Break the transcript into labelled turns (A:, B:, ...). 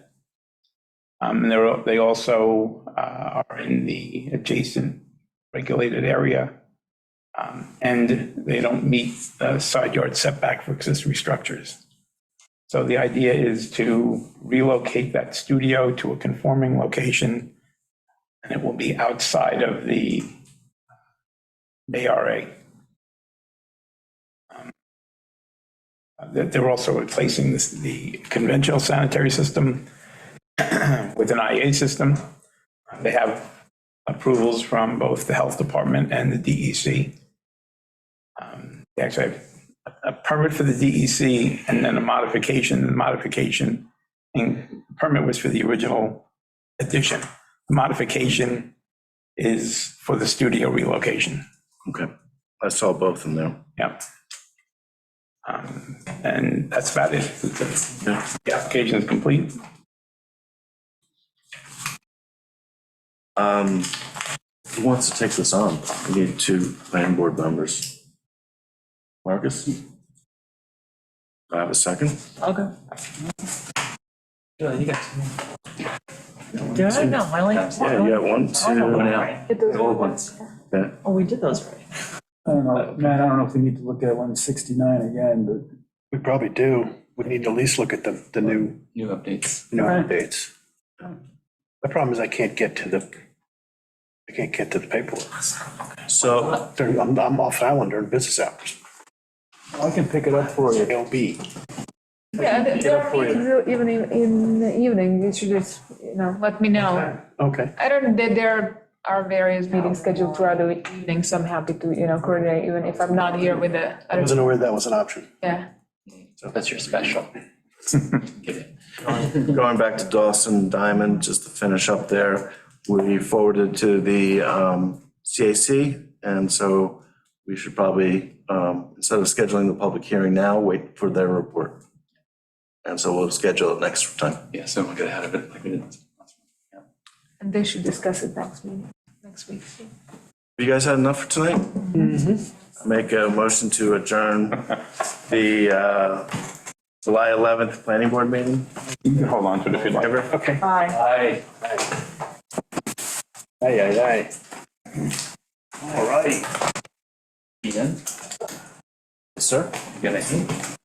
A: Um, And they're, they also uh, are in the adjacent regulated area. Um, And they don't meet the side yard setback for accessory structures. So the idea is to relocate that studio to a conforming location, and it will be outside of the uh, ARA. Um, That they're also replacing this, the conventional sanitary system with an IA system. They have approvals from both the health department and the DEC. Um, They actually have a permit for the DEC and then a modification, the modification. And the permit was for the original addition. The Modification is for the studio relocation.
B: Okay, I saw both in there.
A: Yep. Um, And that's about it.
B: Yeah.
A: The application is complete.
B: Um, Who wants to take this on? We need two planning board members. Marcus? Do I have a second?
C: Okay. Julie, you got two. Do I? No, I only have one.
B: Yeah, yeah, one,
C: I have
B: two.
C: one right.
D: Hit those
C: The old
D: ones.
B: Okay.
C: Oh, we did those right.
E: I don't know, Matt, I don't know if we need to look at one sixty-nine again, but
F: We probably do. We need to at least look at the, the new,
G: New updates.
F: new
E: Right.
F: updates. The problem is I can't get to the, I can't get to the paperwork.
B: So,
F: During- I'm, I'm off island during business hours.
E: I can pick it up for you.
F: LB.
D: Yeah, there- there are meetings even in, in the evening, you should just, you know, let me know.
F: Okay.
D: I don't, there, there are various meetings scheduled throughout the evening, so I'm happy to, you know, coordinate, even if I'm not here with the,
F: I
D: I don't,
F: wasn't aware that was an option.
D: yeah.
G: That's your special. Get it.
B: going back to Dawson Diamond, just to finish up there, we forwarded to the um, CAC, and so we should probably, um, instead of scheduling the public hearing now, wait for their report. And so we'll schedule it next time.
G: Yeah, so we'll get ahead of it like we did. last month.
D: And they should discuss it next meeting, next week.
B: You guys had enough for tonight? Mm-hmm. Make a motion to adjourn the uh, July 11th Planning Board meeting.
A: You can hold on to it if you'd like.
B: Ever?
F: Okay.
D: Bye.
G: Hi.
F: Aye, aye, aye. All right.
G: Ian,
B: Sir?
G: you got anything?